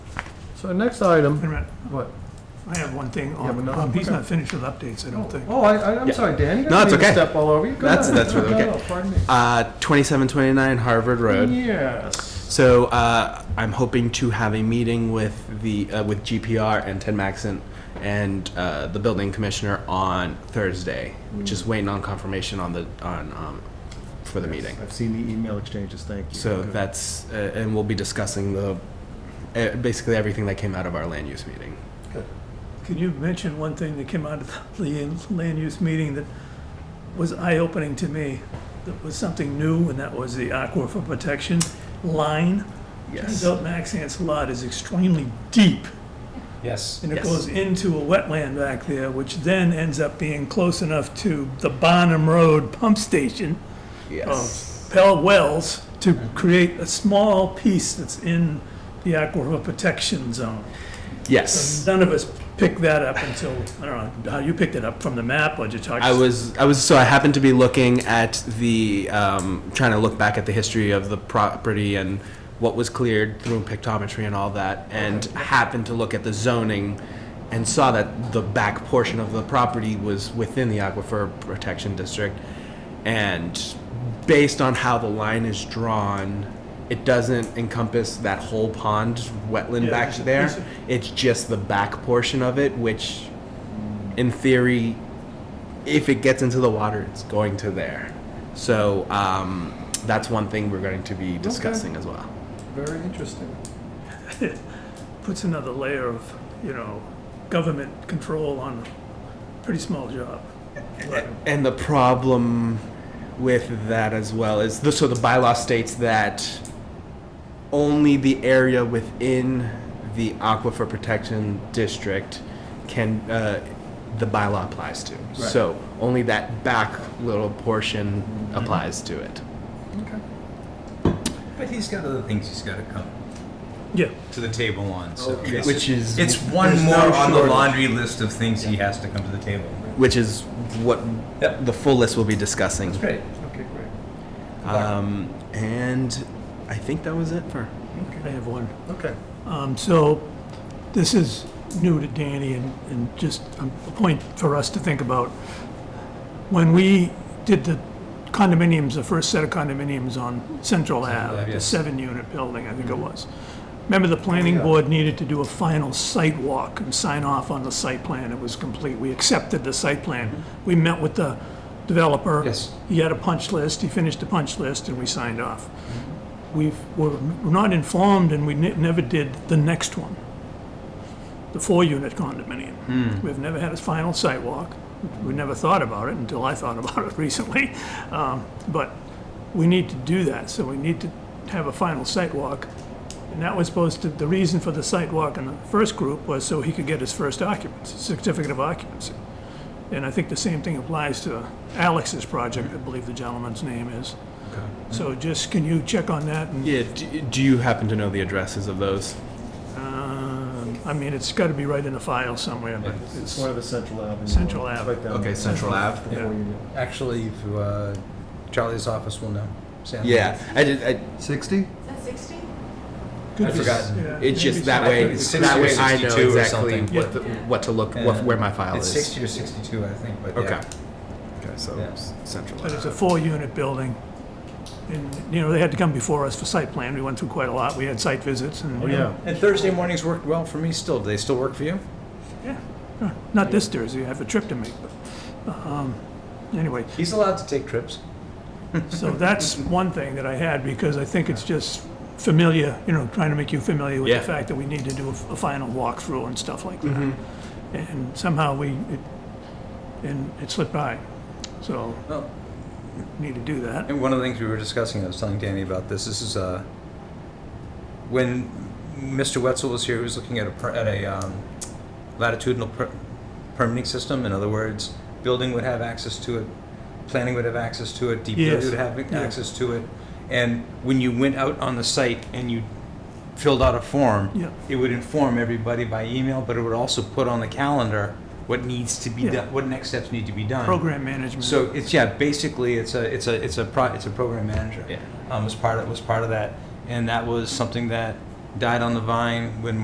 So our next item, Wait a minute, what? I have one thing. have on- another um, one? He's Okay. not finished with updates, I don't think. Oh, I, I- I'm Yeah. sorry, Dan, you No, don't it's need to okay. step all over you. Go That's- ahead. that's really No, no, okay. no, Pardon Uh, 2729 Harvard Road. me. Yes. So uh, I'm hoping to have a meeting with the uh, with GPR and Ted Maxon and uh, the building commissioner on Thursday, which is waiting on confirmation on the on um, for the meeting. I've seen the email exchanges, thank you. So Good. that's uh, and we'll be discussing the uh, basically everything that came out of our land use meeting. Can you mention one thing that came out of the land- land use meeting that was eye-opening to me? That was something new, and that was the aquifer protection line. Turns Yes. out Maxant's lot is extremely deep, Yes. and it Yes. goes into a wetland back there, which then ends up being close enough to the Bonham Road pump station Yes. Pell Wells to create a small piece that's in the aquifer protection zone. Yes. None of us picked that up until, I don't know, how you picked it up, from the map or just talked? I was I was so I happened to be looking at the um, trying to look back at the history of the property and what was cleared through pictometry and all that, and happened to look at the zoning and saw that the back portion of the property was within the aquifer protection district, and based on how the line is drawn. It doesn't encompass that whole pond wetland Yeah, back it's a- there. it's a- It's just the back portion of it, which, in theory, if it gets into the water, it's going to there. So um, that's one thing we're going to be discussing as well. Very interesting. Puts another layer of, you know, government control on a pretty small job. Right. And the problem with that as well is the, so the bylaw states that only the area within the aquifer protection district can uh, the bylaw applies to. So only that back little portion Mm-hmm. applies to it. But he's got other things he's got to come Yeah, to the table on, so. it's- Which is It's one There's more no on the shortage. laundry list of things he has to come to the table. which is what Yep. the full list will be discussing. Great. Okay, great. Um, and I think that was it for. I have one. Okay. Um, so, this is new to Danny and, and just um, a point for us to think about. When we did the condominiums, the first set of condominiums on Central Ave, the yes. seven-unit building, I think it was. Remember, the planning Yeah. board needed to do a final site walk and sign off on the site plan. It was complete. We accepted the site plan. We met with the developer. Yes. He had a punch list. He finished the punch list, and we signed off we've, we're not informed and we ne- never did the next one, the four-unit condominium. We've never had a final sidewalk. We never thought about it until I thought about it recently. Um, But we need to do that, so we need to have a final sidewalk. And that was supposed to, the reason for the sidewalk in the first group was so he could get his first occupancy, certificate of occupancy. And I think the same thing applies to Alex's project, I believe the gentleman's name is. So just, can you check on that? and- Yeah. Do, do you happen to know the addresses of those? Um, I mean, it's got to be right in the file somewhere, but It's it's, one of the Central Avenue. Central ones. Ave. Right down Okay, there. Central Ave. Before Yeah. you know. Actually, if, uh, Charlie's office will know. Sam. Yeah. I did. I, Sixty? Is that 60? Could I've be- forgotten. yeah, it's maybe just that way. It's that way, I 62 know or exactly something. what the, what to look what, Yeah. where my file It's is. sixty or sixty-two, I think, but Okay. yeah. Okay. So Yeah. s- central. But it's a four-unit building, and, you know, they had to come before us for site plan, we went through quite a lot, we had site visits and. Oh, yeah. And Thursday mornings worked well for me still. Do they still work for you? Yeah, yeah. not this Thursday, I have a trip to make, but, um, anyway, He's allowed to take trips. so that's one thing that I had, because I think it's just familiar, you know, trying to make you familiar with Yeah. the fact that we need to do a, a final walkthrough and stuff like that. Mm-hmm. And somehow we, it, and it slipped by, so. Well, need to do that. And one of the things we were discussing, I was telling Danny about this, this is, uh, when Mr. Wetzel was here, he was looking at a, per- at a um, latitudinal per- permitting system. In other words, building would have access to it, planning would have access to it, Yes. DPW would have access to it. And when you went out on the site and you filled out a form, Yeah. it would inform everybody by email, but it would also put on the calendar what needs to be Yeah. done, what next steps need to be done. Program management. So it's, yeah, basically, it's a, it's a, it's a, pro it's a program manager. Yeah. Um, was part of, was part of that, and that was something that died on the vine when